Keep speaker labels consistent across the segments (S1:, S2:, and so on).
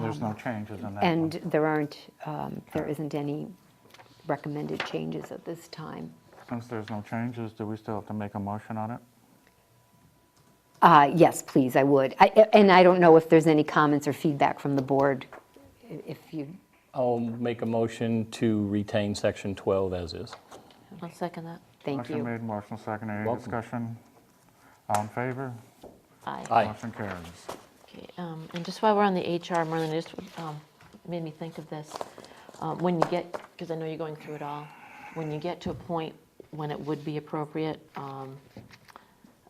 S1: There's
S2: Um,
S1: no changes in that
S3: And
S1: one.
S3: there aren't, um, there isn't any recommended changes at this time.
S1: Since there's no changes, do we still have to make a motion on it?
S3: Uh, Yes, please, I would. I- And I don't know if there's any comments or feedback from the board, i- if you,
S4: I'll make a motion to retain section 12 as is.
S2: I'll second that.
S3: thank
S1: Motion
S3: you.
S1: made, motion seconded, any
S4: Welcome.
S1: discussion? All in favor?
S2: Aye.
S4: Aye.
S1: Motion carries.
S2: Okay, um, And just while we're on the HR, Merlin, it just um, made me think of this. Uh, When you get, because I know you're going through it all, when you get to a point when it would be appropriate, um,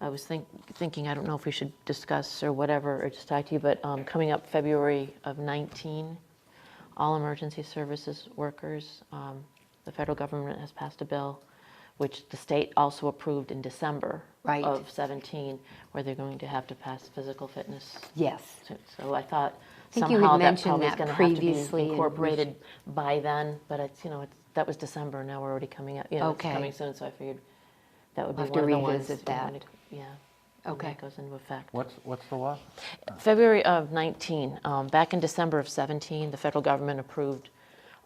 S2: I was think- thinking, I don't know if we should discuss or whatever, or just talk to you, but um, coming up February of 19, all emergency services workers, um, the federal government has passed a bill, which the state also approved in December
S3: Right.
S2: of 17, where they're going to have to pass physical fitness
S3: Yes,
S2: so- So I thought
S3: think you had
S2: somehow that
S3: mentioned
S2: probably is
S3: that
S2: going to have to
S3: previously,
S2: be
S3: and we
S2: incorporated by then, but it's, you know, it's, that was December, now we're already coming up, you know, it's
S3: Okay.
S2: coming soon, so I figured that would be
S3: We'll have
S2: one
S3: to
S2: of the ones.
S3: revisit
S2: we
S3: that.
S2: wanted- Yeah. when
S3: Okay.
S2: That goes into effect.
S1: What's, what's the law?
S2: February of 19, um, back in December of 17, the federal government approved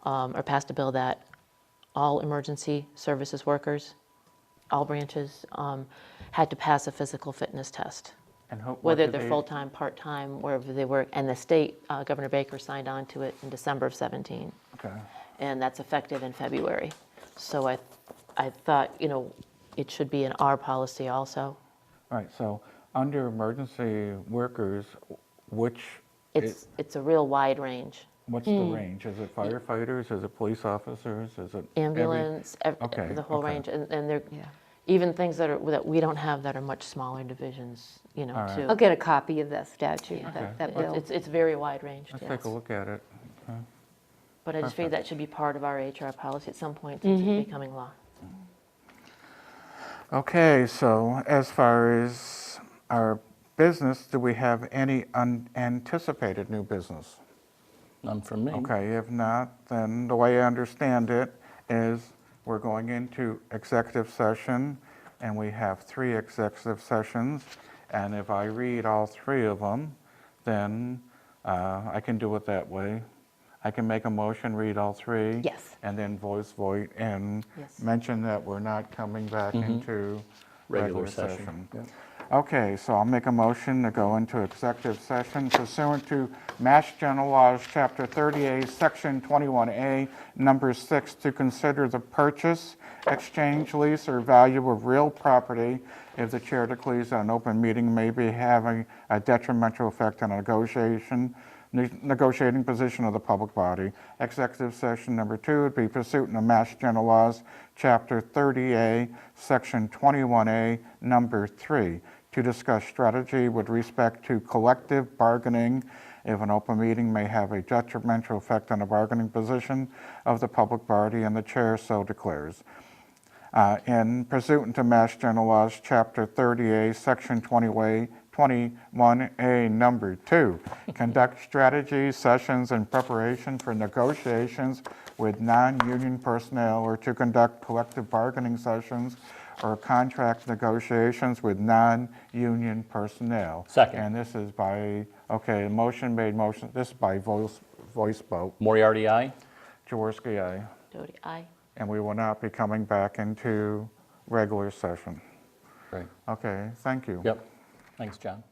S2: um, or passed a bill that all emergency services workers, all branches, um, had to pass a physical fitness test
S1: And who- what
S2: whether
S1: do
S2: they're
S1: they-
S2: full-time, part-time, wherever they work, and the state, uh, Governor Baker signed on to it in December of 17,
S1: Okay,
S2: and that's effective in February. So I, I thought, you know, it should be in our policy also.
S1: all right, so under emergency workers, which,
S2: It's, Hmm.
S1: it-
S2: it's a real wide range.
S1: what's the range? Is it firefighters, is it police officers, is it? every-
S2: Ambulance, ev-
S1: Okay,
S2: the whole
S1: okay.
S2: range, and, and they're,
S3: Yeah.
S2: even things that are, that we don't have that are much smaller divisions, you know,
S1: right.
S2: too.
S3: I'll get a copy of that statute,
S2: Yeah.
S3: that that
S2: It's-
S3: bill.
S2: It's, it's very wide range,
S1: Let's
S2: yes.
S1: take a look at it. Okay.
S2: But I just figured that should be part of our HR policy at some point, since
S3: Mm-hmm.
S2: it's becoming law.
S1: Okay, so as far as our business, do we have any unanticipated new business?
S4: None from me.
S1: Okay, if not, then the way I understand it is we're going into executive session, and we have three executive sessions, and if I read all three of them, then uh, I can do it that way. I can make a motion, read all three.
S3: Yes.
S1: And then voice vote and
S2: Yes.
S1: mention that we're not coming back into
S4: Regular
S1: regular
S4: session.
S1: session. Okay, so I'll make a motion to go into executive session pursuant to Mass General Laws, Chapter 38, Section 21A, Number 6, to consider the purchase, exchange, lease, or value of real property if the chair declares that an open meeting may be having a detrimental effect on a negotiation, ne- negotiating position of the public body. Executive session number two would be pursuant to Mass General Laws, Chapter 30A, Section 21A, Number 3, to discuss strategy with respect to collective bargaining if an open meeting may have a detrimental effect on the bargaining position of the public body and the chair so declares. Uh, in pursuant to Mass General Laws, Chapter 30A, Section 20A, 21A, Number 2. Conduct strategy sessions in preparation for negotiations with non-union personnel or to conduct collective bargaining sessions or contract negotiations with non-union personnel.
S4: Second.
S1: And this is by, okay, motion made, motion, this is by voice, voice vote.
S4: Moriarty, aye?
S1: Jaworski, aye
S2: Doty, aye.
S1: and we will not be coming back into regular session.
S4: Right.
S1: Okay, thank you.
S4: Yep. Thanks, John.